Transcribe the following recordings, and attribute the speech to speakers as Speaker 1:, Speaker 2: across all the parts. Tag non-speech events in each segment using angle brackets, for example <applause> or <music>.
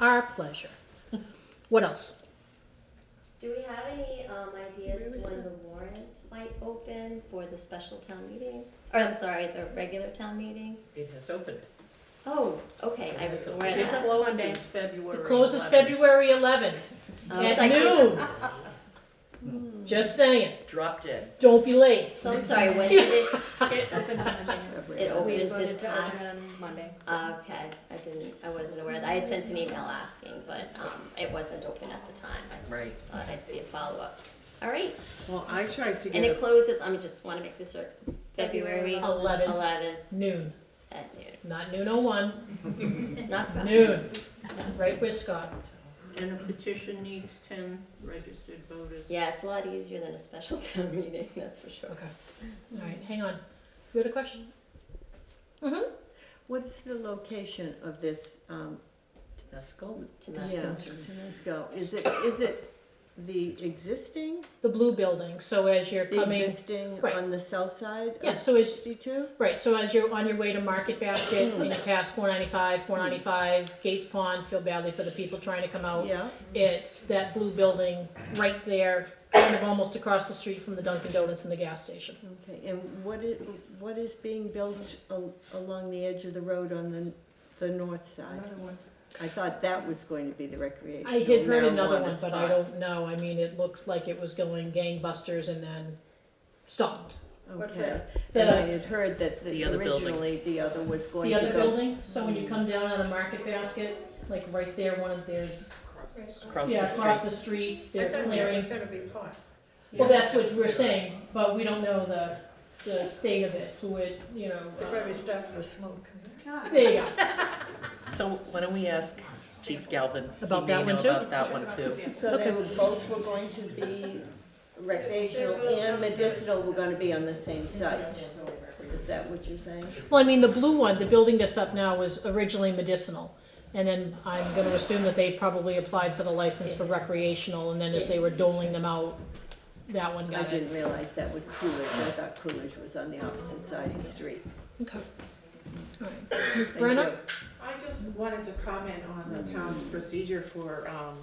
Speaker 1: our pleasure. What else?
Speaker 2: Do we have any um,
Speaker 1: Where was
Speaker 2: ideas when
Speaker 1: that?
Speaker 2: the warrant might open for the special town meeting? Or I'm sorry, the regular town meeting?
Speaker 3: It has opened.
Speaker 2: Oh, okay, I was aware of
Speaker 4: It's
Speaker 2: that.
Speaker 4: closed since February.
Speaker 1: It closes
Speaker 4: 11th.
Speaker 1: February 11
Speaker 2: Um, 'cause I
Speaker 1: at
Speaker 2: did-
Speaker 1: noon. Just saying,
Speaker 3: Drop dead.
Speaker 1: don't be late.
Speaker 2: So I'm sorry, when did
Speaker 3: <laughs>
Speaker 2: it,
Speaker 4: It opened on <laughs> Monday.
Speaker 2: it
Speaker 4: We voted
Speaker 2: opened this
Speaker 4: to
Speaker 2: past? Uh,
Speaker 4: open on Monday.
Speaker 2: Okay, I didn't, I wasn't aware of that. I had sent an email asking, but um, it wasn't open at the time. I
Speaker 3: Right.
Speaker 2: thought I'd see a follow-up. All right,
Speaker 5: Well, I tried to
Speaker 2: and it
Speaker 5: get,
Speaker 2: closes, I'm just want to make this cert- February
Speaker 1: 11,
Speaker 2: 11th
Speaker 1: noon,
Speaker 2: at noon.
Speaker 1: not noon oh one.
Speaker 2: Not
Speaker 1: noon, right where Scott.
Speaker 4: And a petition needs ten registered voters.
Speaker 2: Yeah, it's a lot easier than a special <laughs> town meeting, that's for sure.
Speaker 1: All right, hang on. You had a question? Mm-hmm.
Speaker 5: what is the location of this, um,
Speaker 3: Let's go.
Speaker 2: To
Speaker 5: yeah,
Speaker 2: mess
Speaker 5: Tenasco? Is it, is it the existing,
Speaker 1: The blue building, so as you're
Speaker 5: the
Speaker 1: coming,
Speaker 5: existing
Speaker 1: right.
Speaker 5: on the south side
Speaker 1: Yeah,
Speaker 5: of
Speaker 1: so it's-
Speaker 5: Uh, sixty-two?
Speaker 1: right, so as you're on your way to Market
Speaker 5: <clears throat>
Speaker 1: Basket, and you pass four ninety-five, four ninety-five, Gates Pond, feel badly for the people trying to come out.
Speaker 5: Yeah,
Speaker 1: It's that blue building right there, kind of almost across the street from the Dunkin' Donuts and the gas station.
Speaker 5: okay, and what is, what is being built al- along the edge of the road on the, the north side? I thought that was going to be the recreational
Speaker 1: I had heard another one,
Speaker 5: marijuana
Speaker 1: but I
Speaker 5: spot.
Speaker 1: don't know. I mean, it looked like it was going gangbusters and then stopped.
Speaker 6: What's
Speaker 5: Okay,
Speaker 1: that?
Speaker 5: and I had heard that the-
Speaker 3: The other building.
Speaker 5: originally, the other was going
Speaker 1: The
Speaker 5: to go.
Speaker 1: other building, so when you come down on a market basket, like right there, one of theirs,
Speaker 3: Across
Speaker 1: yeah,
Speaker 3: the
Speaker 1: across
Speaker 3: street.
Speaker 1: the street,
Speaker 6: I
Speaker 1: they're
Speaker 6: thought that
Speaker 1: clearing.
Speaker 6: was gonna be paused.
Speaker 1: Well,
Speaker 5: Yeah.
Speaker 1: that's what we're saying, but we don't know the, the state of it, who it, you know.
Speaker 6: They probably stopped for smoke.
Speaker 1: uh, There you go.
Speaker 3: So why don't we ask Chief Galvin? He
Speaker 1: About
Speaker 3: may
Speaker 1: that one
Speaker 3: know
Speaker 1: too?
Speaker 3: About that one too.
Speaker 5: So they
Speaker 1: Okay.
Speaker 5: were both were going to be recreational and medicinal were gonna be on the same site. Is that what you're saying?
Speaker 1: Well, I mean, the blue one, the building that's up now was originally medicinal. And then I'm gonna assume that they probably applied for the license for recreational, and then as they were doling them out, that one
Speaker 5: I
Speaker 1: got it.
Speaker 5: didn't realize that was Coolidge. I thought Coolidge was on the opposite side of the street.
Speaker 1: Okay. All right. Ms.
Speaker 5: Thank
Speaker 1: Brenna?
Speaker 5: you.
Speaker 7: I just wanted to comment on the town's procedure for, um,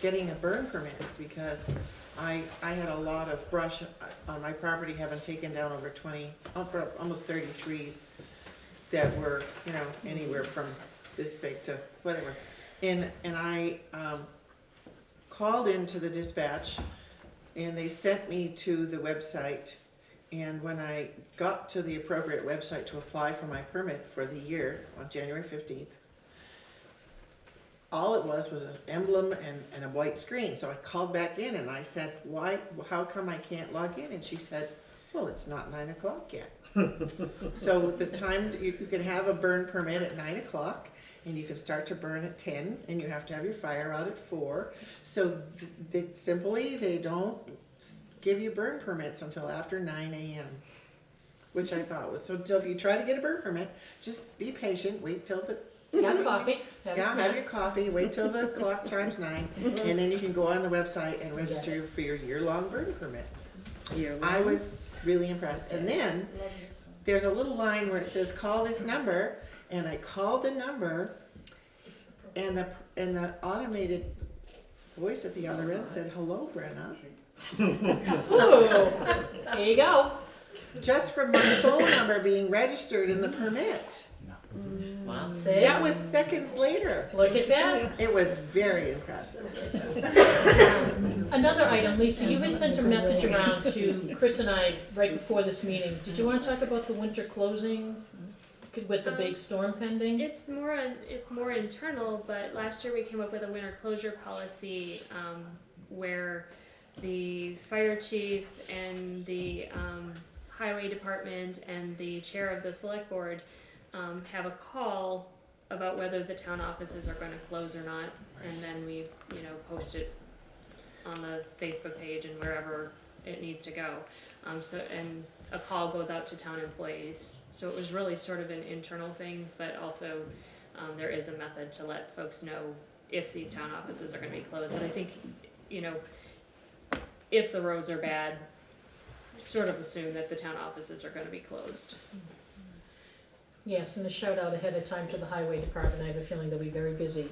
Speaker 7: getting a burn permit, because I, I had a lot of brush on my property, having taken down over twenty, over- almost thirty trees that were, you know, anywhere from this big to whatever. And, and I, um, called into the dispatch, and they sent me to the website. And when I got to the appropriate website to apply for my permit for the year on January fifteenth, all it was was an emblem and, and a white screen. So I called back in and I said, why, how come I can't log in? And she said, well, it's not nine o'clock yet. So the time, that you, you can have a burn permit at nine o'clock and you can start to burn at ten and you have to have your fire out at four. So th- they, simply, they don't s- give you burn permits until after nine AM. Which I thought was, so till if you try to get a burn permit, just be patient, wait till the
Speaker 1: Have coffee, have a
Speaker 7: yeah, have
Speaker 1: snack.
Speaker 7: your coffee, wait till the clock chimes nine, and then you can go on the website and register for your year-long burn permit. I was really impressed, and then, there's a little line where it says, call this number, and I called the number, and the, and the automated voice at the other end said, hello, Brenna.
Speaker 1: Ooh, there you go.
Speaker 7: Just from my phone number being registered in the permit.
Speaker 3: Wow.
Speaker 1: See?
Speaker 7: That was seconds later,
Speaker 1: Look at that.
Speaker 7: it was very impressive.
Speaker 1: Another item, Lisa, you had sent a message around to Chris and I right before this meeting. Did you wanna talk about the winter closings with the big storm pending?
Speaker 8: It's more in- it's more internal, but last year we came up with a winter closure policy um, where the fire chief and the um, highway department and the chair of the select board um, have a call about whether the town offices are going to close or not, and then we you know post it on the Facebook page and wherever it needs to go. Um, so and a call goes out to town employees. So it was really sort of an internal thing, but also um, there is a method to let folks know if the town offices are going to be closed. But I think, you know, if the roads are bad, sort of assume that the town offices are going to be closed.
Speaker 1: Yes, and a shout out ahead of time to the highway department. I have a feeling they'll be very busy